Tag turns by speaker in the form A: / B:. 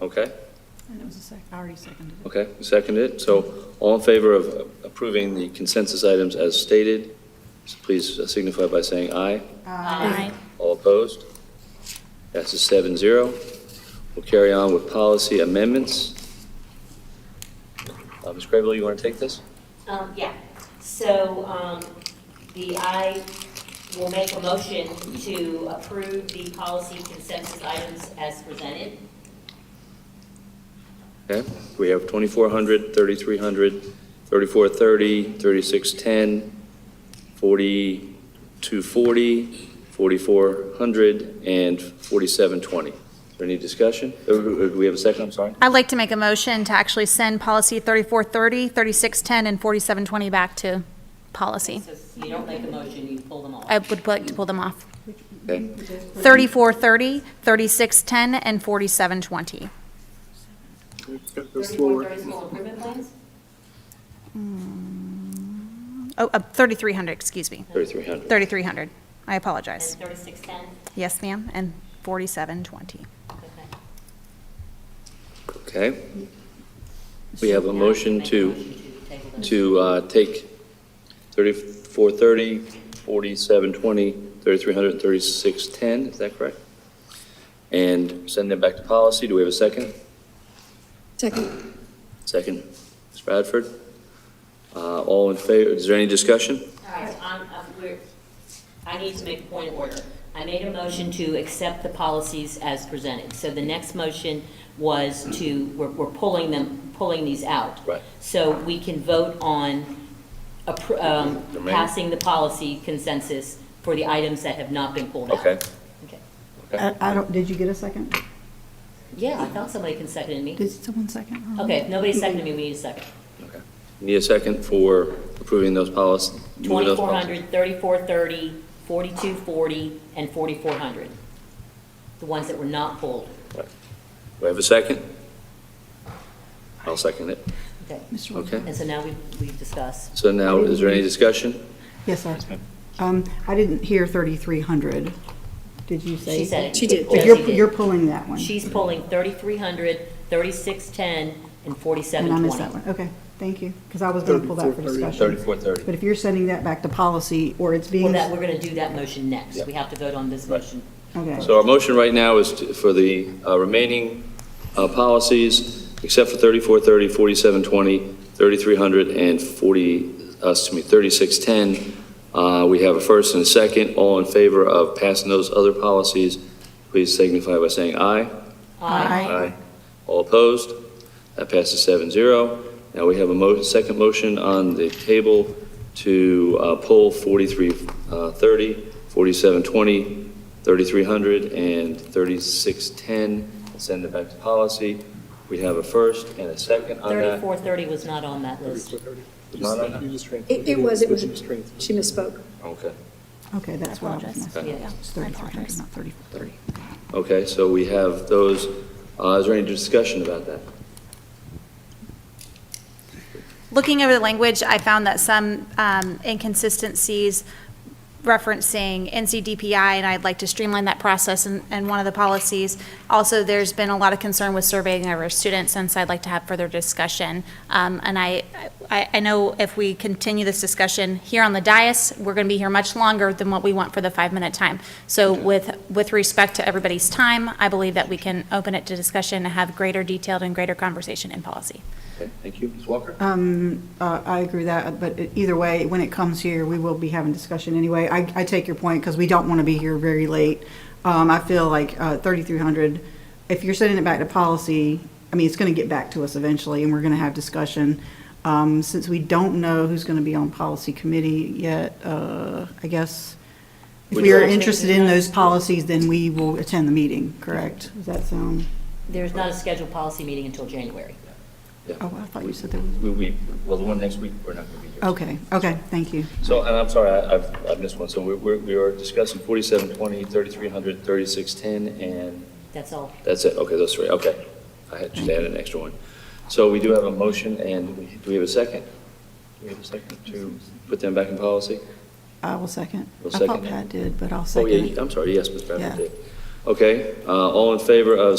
A: Okay,
B: And it was a sec, I already seconded it.
A: okay, seconded. So all in favor of approving the consensus items as stated, please signify by saying aye.
B: Aye.
A: All opposed? That's a seven zero. We'll carry on with policy amendments. Uh, Ms. Grable, you want to take this?
C: Um, yeah, so, um, the, I will make a motion to approve the policy consensus items as presented.
A: Okay, we have 2400, 3300, 3430, 3610, 4240, 4400, and 4720. Is there any discussion? Uh, Do do we have a second? I'm sorry.
D: I'd like to make a motion to actually send policy 3430, 3610, and 4720 back to policy.
C: So you don't make a motion, you pull them all.
D: I would like to pull them off.
A: Okay.
D: 3430, 3610, and 4720.
C: Thirty-four, thirty school improvement plans?
D: Oh, uh, 3300, excuse me.
A: 3300.
D: 3300. I
C: And
D: apologize.
C: thirty-six ten?
D: Yes, ma'am, and 4720.
A: Okay, we have a motion to to uh, take 3430, 4720, 3300, and 3610, is that correct? And send them back to policy. Do we have a second?
E: Second.
A: Second, Ms. Bradford. Uh, All in favor, is there any discussion?
C: All right, I'm, I'm, we're, I need to make a point of order. I made a motion to accept the policies as presented. So the next motion was to, we're, we're pulling them, pulling these out.
A: Right.
C: So we can vote on appro- um,
A: The remaining.
C: passing the policy consensus for the items that have not been pulled out.
A: Okay.
C: Okay.
A: Okay.
F: Uh, I don't, did you get a second?
C: Yeah, I thought somebody can second me.
F: Did someone second?
C: Okay, if nobody seconded me, we need a second.
A: Okay. Need a second for approving those policies?
C: 2400, 3430, 4240, and 4400. The ones that were not pulled.
A: Do I have a second? I'll second it.
C: Okay.
F: Mr.
A: Okay.
F: Wood?
C: And so now we- we've discussed.
A: So now, is there any discussion?
F: Yes, sir. Um, I didn't hear 3,300. Did you say?
C: She said it.
E: She did.
F: But
C: Josie
F: you're,
C: did.
F: you're pulling that one.
C: She's pulling 3300, 3610,
F: And
C: and
F: I missed that
C: 4720.
F: one. Okay, thank you. Because I was going to pull that for
E: 3430.
F: discussion.
A: 3430.
F: But if you're sending that back to policy or it's
C: Well,
F: being,
C: that, we're going to do that motion next. We have to vote on this motion.
F: okay.
A: So our motion right now is to- for the uh, remaining uh, policies, except for 3430, 4720, 3300, and 40, uh, excuse me, 3610. Uh, We have a first and a second. All in favor of passing those other policies, please signify by saying aye. Aye. All opposed? That passes 7-0. Now we have a mo, second motion on the table to uh, pull uh, 4330, 4720, 3300, and 3610, and send it back to policy. We have a first and a second on that.
C: 3430 was not on that list.
E: It, it was, it was, she misspoke.
A: Okay.
F: Okay, that's what I was
D: Apologize.
F: missing.
C: Yeah.
F: It's
D: I
F: 3,300,
D: apologize.
F: not 3,430.
A: Okay, so we have those, uh, is there any discussion about that?
D: Looking over the language, I found that some um, inconsistencies referencing NCDPI, and I'd like to streamline that process in, in one of the policies. Also, there's been a lot of concern with surveying of our students, and so I'd like to have further discussion. Um, And I, I, I know if we continue this discussion here on the dais, we're going to be here much longer than what we want for the five-minute time. So with, with respect to everybody's time, I believe that we can open it to discussion and have greater detailed and greater conversation in policy.
A: Okay, thank you. Ms. Walker?
F: Uh, I agree with that, but it- either way, when it comes here, we will be having discussion anyway. I, I take your point, because we don't want to be here very late. Um, I feel like uh, 3,300, if you're sending it back to policy, I mean, it's going to get back to us eventually, and we're going to have discussion. Um, Since we don't know who's going to be on policy committee yet, uh, I guess, if
A: Would
F: we
A: you-
F: are interested in those policies, then we will attend the meeting, correct? Does that sound,
C: There's not a scheduled policy meeting until January.
F: oh, I thought you said there was,
A: We-
F: Oh,
A: We, well, the one next week, we're not going to be here.
F: okay, okay, thank you.
A: So, and I'm sorry, I- I've, I've missed one. So we're- we're, we are discussing 4720, 3300, 3610, and
C: That's all.
A: that's it. Okay, those three, okay. I had, just added an extra one. So we do have a motion, and we- do we have a second? Do we have a second to put them back in policy?
F: I will second.
A: You'll
F: I
A: second
F: thought
A: it?
F: Pat did, but I'll
A: Oh,
F: second
A: yeah,
F: it.
A: I'm sorry, yes, Ms. Bradford
F: Yeah.
A: did. Okay, uh, all in favor of